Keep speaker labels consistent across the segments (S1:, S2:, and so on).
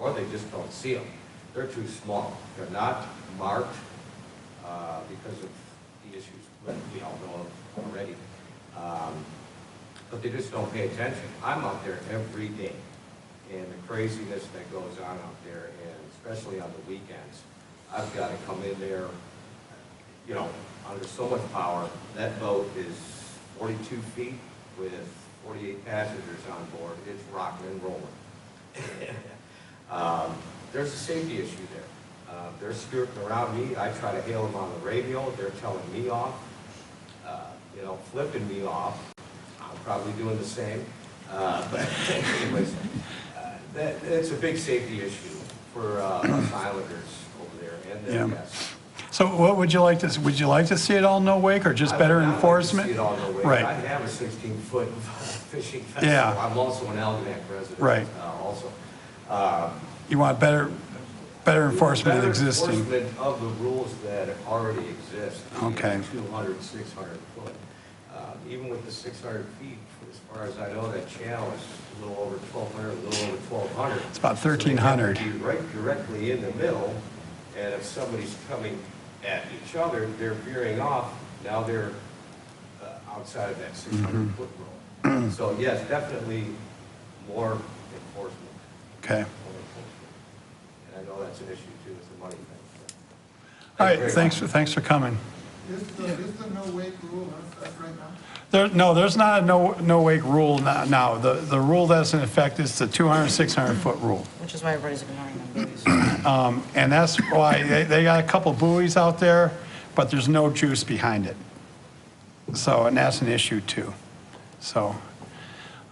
S1: or they just don't see them. They're too small, they're not marked, uh, because of the issues that we all know of already. Um, But they just don't pay attention. I'm out there every day, and the craziness that goes on out there, and especially on the weekends. I've gotta come in there, you know, under so much power, that boat is forty-two feet with forty-eight passengers on board, it's rocking and rolling. Um, There's a safety issue there. Uh, They're skirting around me, I try to hail them on the radio, they're telling me off, uh, you know, flipping me off. I'm probably doing the same, Uh, but anyways, uh, that, that's a big safety issue for uh, us islanders over there and their
S2: Yeah.
S1: guests.
S2: So what would you like to, s- would you like to see it all no wake or just
S1: I would
S2: better
S1: not like to
S2: enforcement?
S1: see it all go away. I
S2: Right,
S1: have a 16-foot fishing vessel.
S2: Yeah.
S1: I'm also an Algonac resident.
S2: Right.
S1: uh, Also. Uh,
S2: you want better, better enforcement
S1: better
S2: than existing.
S1: Enforcement of the rules that already exist. even
S2: Okay.
S1: 200, 600 foot. Uh, Even with the 600 feet, as far as I know, that channel is a little over 1,200, a little over 1,200.
S2: It's about
S1: So they have to
S2: 1,300.
S1: be right directly in the middle, and if somebody's coming at each other, they're veering off, now they're uh, outside of that
S2: Mm-hmm.
S1: 600-foot rule. So yes, definitely more enforcement.
S2: Okay.
S1: more enforcement. And I know that's an issue too, it's a money thing. Thank
S2: All
S1: you
S2: right,
S1: very
S2: thanks,
S1: much.
S2: thanks for coming.
S3: Is the, is the no wake rule on us right now?
S2: There, no, there's not a no, no wake rule no- now. The, the rule that's in effect is the 200, 600 foot rule.
S4: Which is why everybody's ignoring them. buoys.
S2: Um, And that's why, they, they got a couple buoys out there, but there's no juice behind it. So, and that's an issue too. So,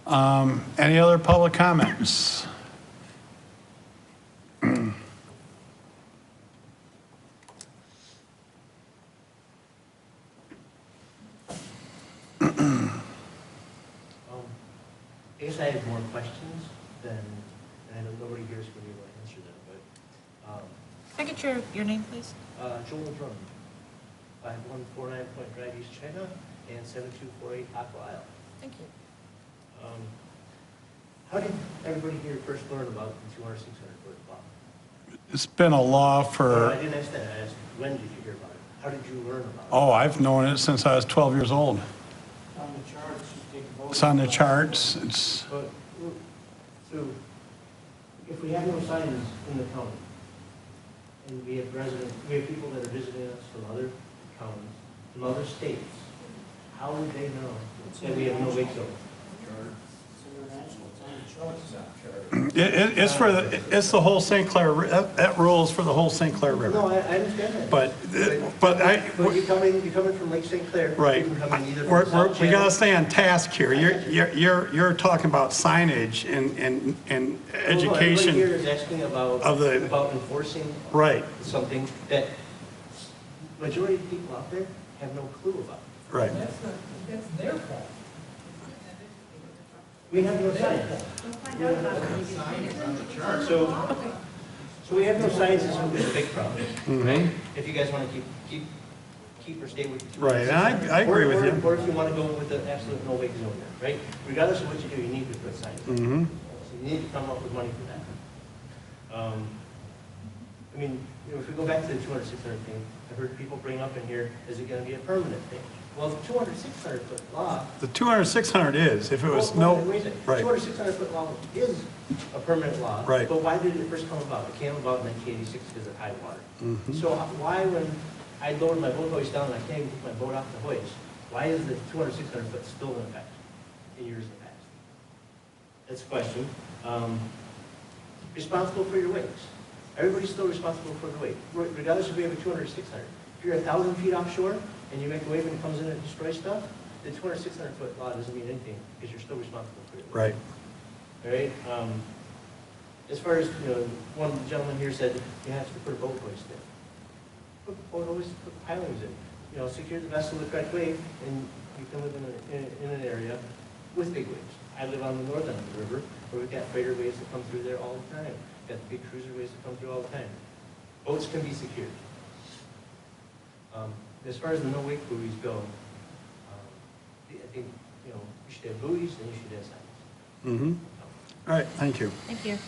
S2: um, any other public comments?
S5: Um, I guess I have more questions than, and I know nobody here is going to be able to answer them, but um,
S4: Can I get your, your name, please?
S5: uh, Joel Drum, five one four nine Point Drive, East China, and seven two four eight Aqua Isle.
S4: Thank you.
S5: Um, How did everybody here first learn about the two hundred, six hundred foot law?
S2: It's been a law
S5: No, I
S2: for,
S5: didn't ask that, I asked, when did you hear about it? How did you learn about it?
S2: oh, I've known it since I was 12 years old.
S3: On the charts, you take a vote.
S2: It's on the charts, it's,
S5: But, well, so, if we have no signs in the county, and we have residents, we have people that are visiting us from other counties, from other states, how would they know that we have no wake zone?
S3: It's international, it's on the charts.
S2: it- it- it's for, the it's the whole St. Clair, Ri- that that rule is for the whole St. Clair
S5: No,
S2: River.
S5: I, I understand that.
S2: But, but I,
S5: But you're coming, you're coming from Lake St. Clair.
S2: Right.
S5: You're coming either
S2: We're-
S5: from
S2: we're-
S5: South
S2: We gotta
S5: Channel.
S2: stay on task here. You're, you're- you're, you're talking about signage and, and, and
S5: Well, no, everybody here
S2: education.
S5: is asking about,
S2: of the-
S5: about enforcing
S2: Right,
S5: something that majority of people out there have no clue about.
S2: right.
S6: That's not, that's their fault.
S5: We have no signs.
S3: Signs on the charts.
S5: So, so we have no signs is a big problem. If you guys want to keep, keep, keep or stay with.
S2: Right, and I- I agree
S5: Or-
S2: with
S5: or-
S2: you.
S5: Or if you want to go with the absolute no wake zone, there, right? Regardless of what you do, you need to put signs. So
S2: Mhm.
S5: you need to come up with money for that. Um, I mean, you know, if we go back to the 200, 600 thing, I've heard people bring up in here, is it going to be a permanent thing? Well, the 200, 600 foot law
S2: The 200, 600 is, if it was no, right.
S5: 200, 600-foot law is a permanent law.
S2: Right.
S5: But why did it first come about? It came about in 1986 because of high water.
S2: Mm-hmm.
S5: So why, when I lowered my boat hoist down and I can't even put my boat off the hoist, why is the 200, 600-foot still in effect in years in the past? That's a question. Um, Responsible for your wakes. Everybody's still responsible for the wake, re- regardless if we have a 200 or 600. If you're a 1,000 feet offshore and you make a wave and it comes in and destroys stuff, the 200, 600-foot law doesn't mean anything because you're still responsible for your wake.
S2: Right,
S5: All right, um, as far as, you know, one gentleman here said, you have to put a boat hoist in. Put boat hoist, put pilings in, you know, secure the vessel the correct way, and you can live in, a- in, in an area with big waves. I live on the north end of the river, where we've got freighter waves that come through there all the time, got the big cruiser waves that come through all the time. Boats can be secured. Um, as far as the no-wake buoys go, um, I think, you know, you should have buoys, and you should have signs.
S2: mhm. Mm-hmm. All right, thank you.
S4: Thank you.